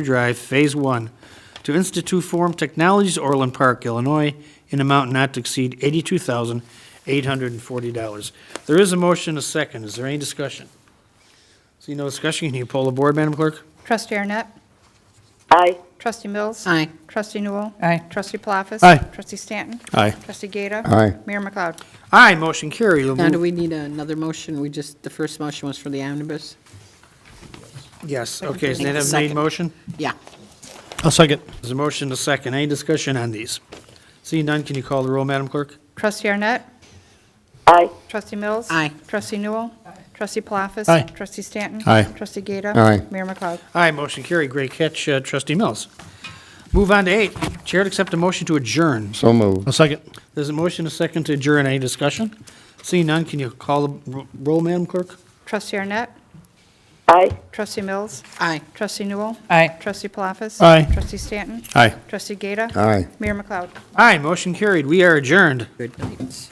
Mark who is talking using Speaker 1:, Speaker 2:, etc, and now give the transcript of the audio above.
Speaker 1: Drive, Phase One, to Institute Forum Technologies, Orland Park, Illinois, in amount not to exceed eighty-two thousand, eight hundred and forty dollars. There is a motion, a second. Is there any discussion? See no discussion, can you poll the board, Madam Clerk?
Speaker 2: Trustee Arnett.
Speaker 3: Aye.
Speaker 2: Trustee Mills.
Speaker 4: Aye.
Speaker 2: Trustee Newell.
Speaker 4: Aye.
Speaker 2: Trustee Palafis.
Speaker 1: Aye.
Speaker 2: Trustee Stanton.
Speaker 5: Aye.
Speaker 2: Trustee Gata.
Speaker 5: Aye.
Speaker 2: Mayor McLeod.
Speaker 1: Aye, motion carried. We'll
Speaker 4: Now, do
Speaker 1: move-
Speaker 4: we need another motion? We just, the first motion was for the omnibus?
Speaker 1: Yes, okay, is
Speaker 4: Make
Speaker 1: that
Speaker 4: the
Speaker 1: a made
Speaker 4: second.
Speaker 1: motion?
Speaker 4: Yeah.
Speaker 5: I'll second.
Speaker 1: There's a motion, a second. Any discussion on these? See none, can you call the roll, Madam Clerk?
Speaker 2: Trustee Arnett.
Speaker 3: Aye.
Speaker 2: Trustee Mills.
Speaker 4: Aye.
Speaker 2: Trustee Newell. Trustee Palafis.
Speaker 5: Aye.
Speaker 2: Trustee Stanton.
Speaker 5: Aye.
Speaker 2: Trustee Gata.
Speaker 5: Aye.
Speaker 2: Mayor McLeod.
Speaker 1: Aye, motion carried. Great catch, uh, trustee Mills. Move on to eight, chair to accept a motion to adjourn.
Speaker 5: So moved. I'll second.
Speaker 1: There's a motion, a second to adjourn. Any discussion? See none, can you call the ro- roll, Madam Clerk?
Speaker 2: Trustee Arnett.
Speaker 3: Aye.
Speaker 2: Trustee Mills.
Speaker 4: Aye.
Speaker 2: Trustee Newell.
Speaker 4: Aye.
Speaker 2: Trustee Palafis.
Speaker 5: Aye.
Speaker 2: Trustee Stanton.
Speaker 5: Aye.
Speaker 2: Trustee Gata.
Speaker 5: Aye.
Speaker 2: Mayor McLeod.
Speaker 1: Aye, motion carried. We are adjourned.
Speaker 4: Good night.